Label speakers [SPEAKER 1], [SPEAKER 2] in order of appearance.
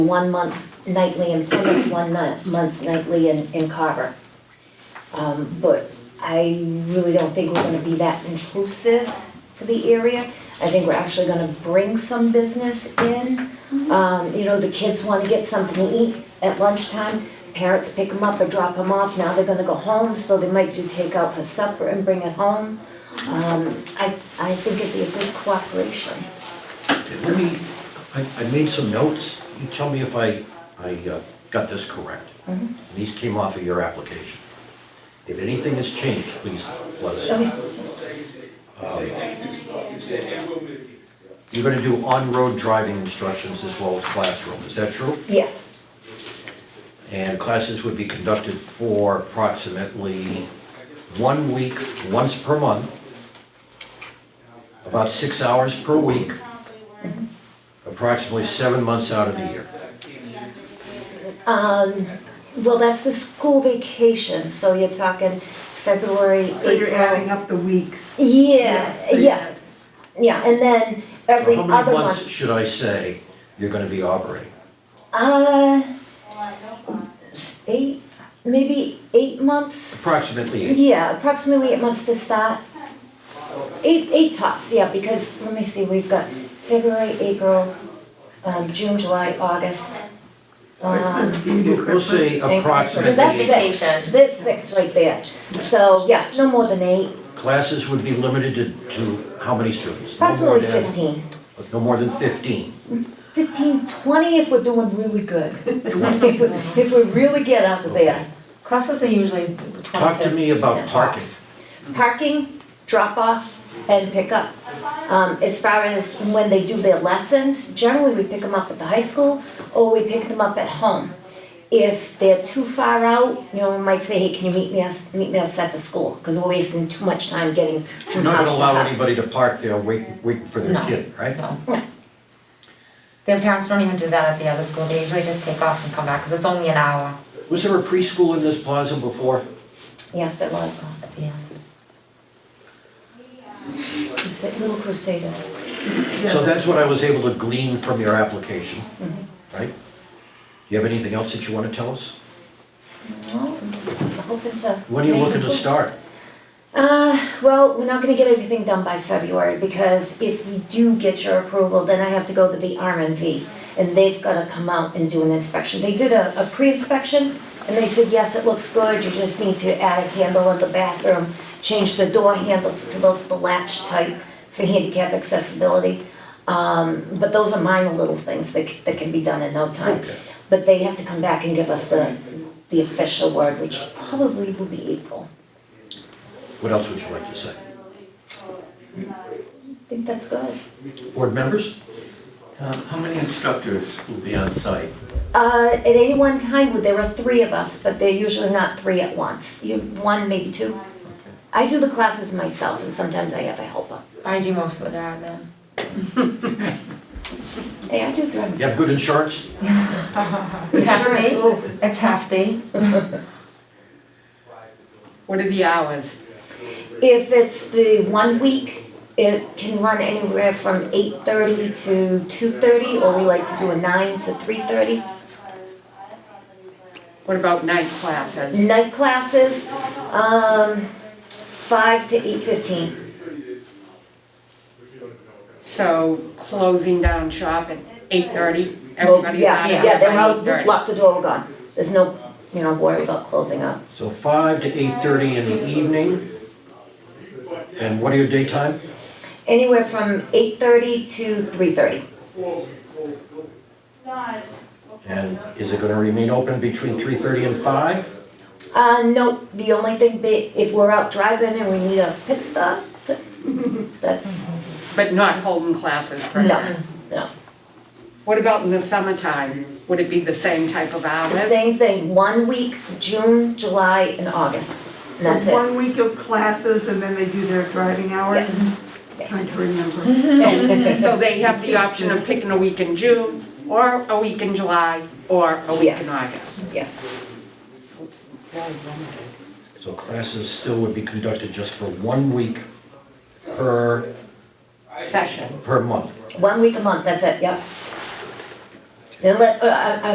[SPEAKER 1] one month nightly in Plymouth, one ni- month nightly in, in Carver. Um, but I really don't think we're gonna be that intrusive for the area. I think we're actually gonna bring some business in. Um, you know, the kids wanna get something to eat at lunchtime, parents pick them up or drop them off, now they're gonna go home, so they might do takeout for supper and bring it home. Um, I, I think it'd be a good cooperation.
[SPEAKER 2] Let me, I, I made some notes, you tell me if I, I uh, got this correct. These came off of your application. If anything has changed, please let us know.
[SPEAKER 1] Okay.
[SPEAKER 2] You're gonna do on-road driving instructions as well as classroom, is that true?
[SPEAKER 1] Yes,
[SPEAKER 2] And classes would be conducted for approximately one week, once per month, about six hours per week, approximately seven months out of the year.
[SPEAKER 1] um, well, that's the school vacation, so you're talking February, April.
[SPEAKER 3] So you're adding up the weeks.
[SPEAKER 1] Yeah,
[SPEAKER 3] so
[SPEAKER 1] yeah, yeah, and then every
[SPEAKER 2] How many
[SPEAKER 1] other one.
[SPEAKER 2] months should I say you're gonna be operating?
[SPEAKER 1] Uh, s- eight, maybe eight months?
[SPEAKER 2] Approximately eight.
[SPEAKER 1] Yeah, approximately eight months to start. Eight, eight tops, yeah, because, let me see, we've got February, April, um, June, July, August. Um,
[SPEAKER 3] Christmas, you do
[SPEAKER 2] We'll say
[SPEAKER 3] Christmas.
[SPEAKER 1] so
[SPEAKER 2] approximately
[SPEAKER 1] that's
[SPEAKER 2] eight.
[SPEAKER 1] six, there's six right there. So, yeah, no more than eight,
[SPEAKER 2] Classes would be limited to, to how many students? No more
[SPEAKER 1] approximately
[SPEAKER 2] than-
[SPEAKER 1] fifteen.
[SPEAKER 2] No more than fifteen.
[SPEAKER 1] Fifteen, twenty if we're doing really good. If we, if we really get out there.
[SPEAKER 4] Classes are usually twenty.
[SPEAKER 2] Talk to me
[SPEAKER 4] kids in
[SPEAKER 2] about
[SPEAKER 4] a
[SPEAKER 2] parking.
[SPEAKER 4] class.
[SPEAKER 1] Parking, drop off, and pick up. Um, as far as when they do their lessons, generally we pick them up at the high school or we pick them up at home. If they're too far out, you know, we might say, hey, can you meet me, us- meet me outside the school? Because we're wasting too much time getting
[SPEAKER 2] You're
[SPEAKER 1] from
[SPEAKER 2] not
[SPEAKER 1] house to house.
[SPEAKER 2] gonna allow anybody to park there waiting, waiting for their
[SPEAKER 4] No.
[SPEAKER 2] kid, right?
[SPEAKER 4] No. Their parents don't even do that at the other school, they usually just take off and come back, cause it's only an hour
[SPEAKER 2] Was there a preschool in this plaza before?
[SPEAKER 1] Yes, there was.
[SPEAKER 4] at the end.
[SPEAKER 1] Crusade- Little Crusaders.
[SPEAKER 2] So that's what I was able to glean from your application, right? Do you have anything else that you wanna tell us?
[SPEAKER 1] No, I'm just hoping to.
[SPEAKER 2] When are you
[SPEAKER 1] make
[SPEAKER 2] looking
[SPEAKER 1] this
[SPEAKER 2] to
[SPEAKER 1] work.
[SPEAKER 2] start?
[SPEAKER 1] Uh, well, we're not gonna get everything done by February, because if we do get your approval, then I have to go to the RMV, and they've gotta come out and do an inspection. They did a, a pre-inspection, and they said, yes, it looks good, you just need to add a handle in the bathroom, change the door handles to the, the latch type for handicap accessibility. Um, but those are minor little things that, c- that can be done in no time.
[SPEAKER 2] Okay.
[SPEAKER 1] But they have to come back and give us the, the official word, which probably will be April.
[SPEAKER 2] What else would you like to say?
[SPEAKER 1] I think that's good.
[SPEAKER 2] Board members?
[SPEAKER 5] Uh, How many instructors will be on site?
[SPEAKER 1] Uh, at any one time, well, there are three of us, but they're usually not three at once. You, one, maybe two. I do the classes myself, and sometimes I have a helper.
[SPEAKER 4] I do most of the driving then.
[SPEAKER 1] Hey, I do drum.
[SPEAKER 2] You have good insurance?
[SPEAKER 4] It's half day, it's half day.
[SPEAKER 6] What are the hours?
[SPEAKER 1] If it's the one week, it can run anywhere from eight thirty to two thirty, or we like to do a nine to three thirty.
[SPEAKER 6] What about night classes?
[SPEAKER 1] Night classes, um, five to eight fifteen.
[SPEAKER 6] So closing down shop at eight thirty? Everybody out
[SPEAKER 1] Yeah, yeah,
[SPEAKER 6] by
[SPEAKER 1] they're out,
[SPEAKER 6] 8:30.
[SPEAKER 1] lock the door, we're gone. There's no, you know, worry about closing up.
[SPEAKER 2] So five to eight-thirty in the evening? And what are your daytime?
[SPEAKER 1] Anywhere from eight thirty to three thirty.
[SPEAKER 2] And is it gonna remain open between three-thirty and five?
[SPEAKER 1] Uh, nope, the only thing, be- if we're out driving and we need a pit stop, that's,
[SPEAKER 6] But not holding classes for
[SPEAKER 1] no,
[SPEAKER 6] that?
[SPEAKER 1] no.
[SPEAKER 6] What about in the summertime? Would it be the same type of
[SPEAKER 1] The
[SPEAKER 6] hours?
[SPEAKER 1] Same thing, one week, June, July, and August, and that's
[SPEAKER 3] So
[SPEAKER 1] it.
[SPEAKER 3] one week of classes and then they do their driving hours? Trying to
[SPEAKER 1] Mm-hmm.
[SPEAKER 3] remember.
[SPEAKER 6] So they have the option of picking a week in June, or a week in July, or a week
[SPEAKER 1] Yes.
[SPEAKER 6] in August?
[SPEAKER 1] Yes,
[SPEAKER 6] Very limited.
[SPEAKER 2] So classes still would be conducted just for one week per,
[SPEAKER 6] Session.
[SPEAKER 2] per month.
[SPEAKER 1] one week a month, that's it, yep. Unless, uh, I- I-